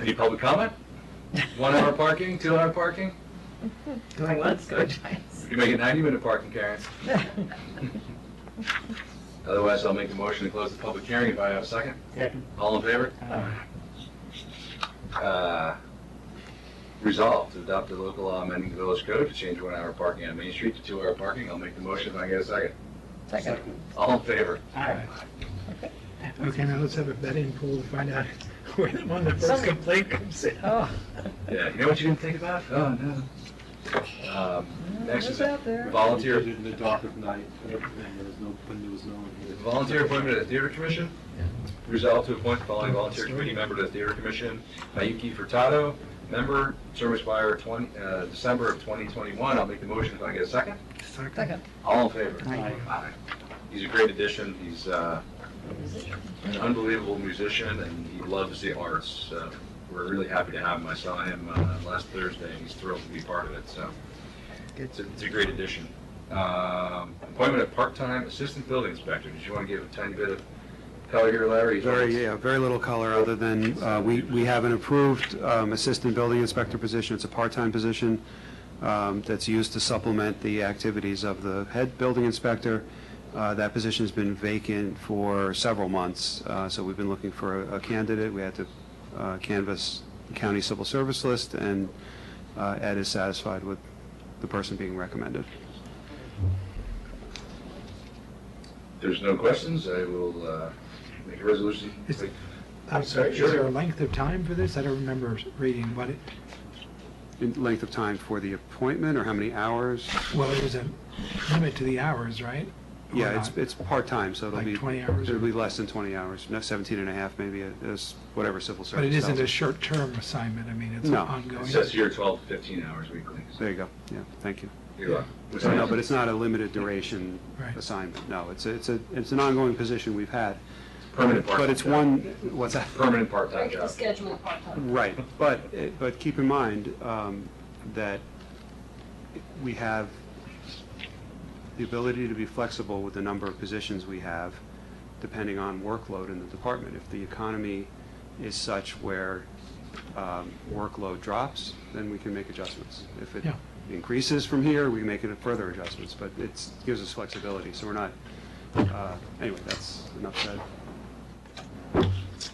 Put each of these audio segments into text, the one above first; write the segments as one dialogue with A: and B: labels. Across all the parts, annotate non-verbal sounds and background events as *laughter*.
A: Any public comment? One hour parking, two hour parking?
B: Going once, going twice.
A: You make it 90-minute parking, Karen. Otherwise, I'll make the motion to close the public hearing if I have a second.
B: Second.
A: All in favor? Uh, Resolved to adopt the local law amending the village code to change one-hour parking on Main Street to two-hour parking. I'll make the motion if I get a second.
B: Second.
A: All in favor?
C: Okay, now let's have a betting pool to find out *laughs* where the one that first complaint comes in.
B: Oh,
A: Yeah, you know what you didn't think about? Oh, no. Um, Next is
B: What's out there?
A: volunteer,
D: We did it in the dark of night, and there was no, when there was no one here.
A: Volunteer appointment to the Theater Commission. Resolved to appoint the following volunteer committee member to the Theater Commission, Mayuki Furtado, member, term expire 20, uh, December of 2021. I'll make the motion if I get a second.
B: second.
A: All in favor?
D: Aye.
A: Aye. He's a great addition. He's uh, an unbelievable musician, and he loves the arts. Uh, We're really happy to have him. I saw him uh, last Thursday, and he's thrilled to be part of it, so it's a it's a great addition. Um, Appointment of part-time assistant building inspector. Did you want to give a tiny bit of color here, Larry?
D: Very, yeah, very little color, other than uh, we we have an approved um, assistant building inspector position. It's a part-time position um, that's used to supplement the activities of the head building inspector. Uh, That position's been vacant for several months, uh, so we've been looking for a- a candidate. We had to uh, canvass the county civil service list, and uh, Ed is satisfied with the person being recommended.
A: If There's no questions. I will uh, make a resolution.
C: Is- I'm sorry, is
A: Sure.
C: there a length of time for this? I don't remember reading what it,
D: In Length of time for the appointment, or how many hours?
C: well, there was a limit to the hours, right? Or
D: Yeah, it's,
C: not?
D: it's part-time, so it'll
C: Like
D: be.
C: 20 hours?
D: It'll be less than 20 hours, no, 17 and a half maybe, uh, is whatever civil service.
C: But it isn't
D: tells
C: a
D: us.
C: short-term assignment, I mean, it's
D: No.
A: It
C: ongoing.
A: says here 12 to 15 hours weekly. so
D: There you go, yeah, thank you.
A: you're welcome.
D: So no, but it's not a limited duration
C: Right.
D: assignment, no, it's, a- it's a, it's an ongoing position we've had.
A: Permanent part-time
D: But it's
A: job.
D: one, what's that?
A: Permanent part-time
E: Regular
A: job.
E: schedule part-time.
D: Right, but, it- but keep in mind um, that we have the ability to be flexible with the number of positions we have, depending on workload in the department. If the economy is such where um, workload drops, then we can make adjustments. If it
C: Yeah.
D: increases from here, we make it further adjustments, but it's, gives us flexibility, so we're not, uh, anyway, that's enough said.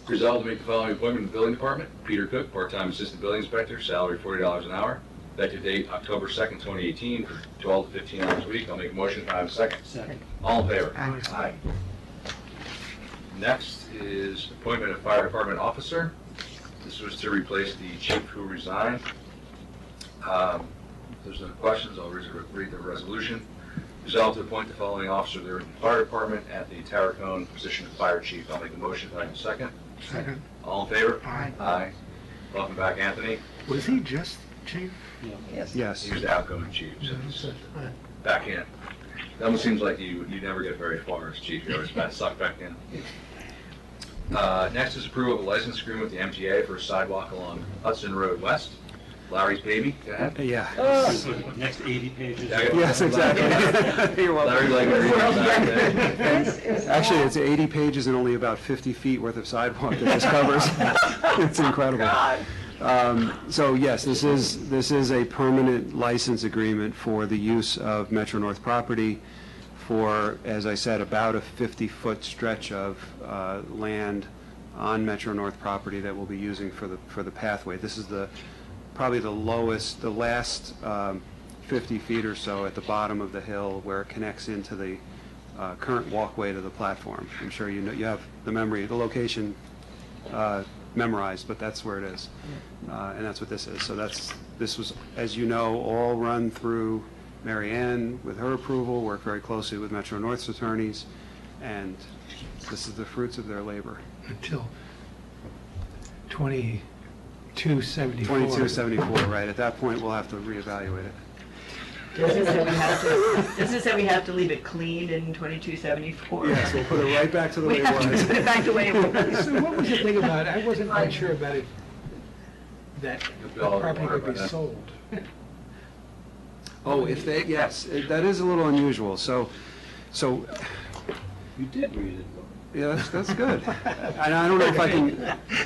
A: Resolved to make the following appointment in the building department. Peter Cook, part-time assistant building inspector, salary forty dollars an hour. Effective date October second, twenty eighteen, for twelve to fifteen hours a week. I'll make a motion if I have a second.
B: Second.
A: All in favor?
B: Aye.
A: Next is appointment of fire department officer. This was to replace the chief who resigned. Um, If there's no questions, I'll res- read the resolution. Resolved to appoint the following officer to the fire department at the Tarracone position of fire chief. I'll make a motion if I have a second.
C: Second.
A: All in favor?
C: Aye.
A: Aye. Welcome back, Anthony.
C: Was he just chief?
B: Yes.
D: Yes.
A: He was the outgoing chief, so he's back in. That almost seems like you, you never get very far as chief, you're always about sucked back in. Uh, Next is approval of a license agreement with the MTA for a sidewalk along Hudson Road West. Larry's baby, go ahead.
D: Yeah.
B: Oh,
F: Next 80 pages.
A: Yeah, yeah.
D: Yes, exactly. You're welcome.
A: Larry like
D: *laughs*
A: to read that there.
B: This is
D: Actually,
B: not-
D: it's 80 pages and only about 50 feet worth of sidewalk that this covers. *laughs* It's incredible. Um, So yes, this is, this is a permanent license agreement for the use of Metro North property for, as I said, about a 50-foot stretch of uh, land on Metro North property that we'll be using for the, for the pathway. This is the, probably the lowest, the last um, 50 feet or so at the bottom of the hill where it connects into the uh, current walkway to the platform. I'm sure you know, you have the memory, the location uh, memorized, but that's where it is. Uh, And that's what this is. So that's, this was, as you know, all run through Mary Ann with her approval, worked very closely with Metro North's attorneys, and this is the fruits of their *laughs* labor.
C: Until 2274.
D: 2274, right? At that point, we'll have to reevaluate it.
B: This is that we have to, this is that we have to leave it clean in 2274.
D: Yes, we'll put it right back to the way
B: We
D: it
B: have to
D: was.
B: put it back the way it
D: *laughs*
B: was.
C: *laughs* So what was the thing about, I wasn't quite sure about it, that the property would be sold.
D: Oh, if they, yes, it- that is a little unusual. So, so,
F: You did read it, though.
D: *laughs* yeah, that's, that's good. And I don't know if I can,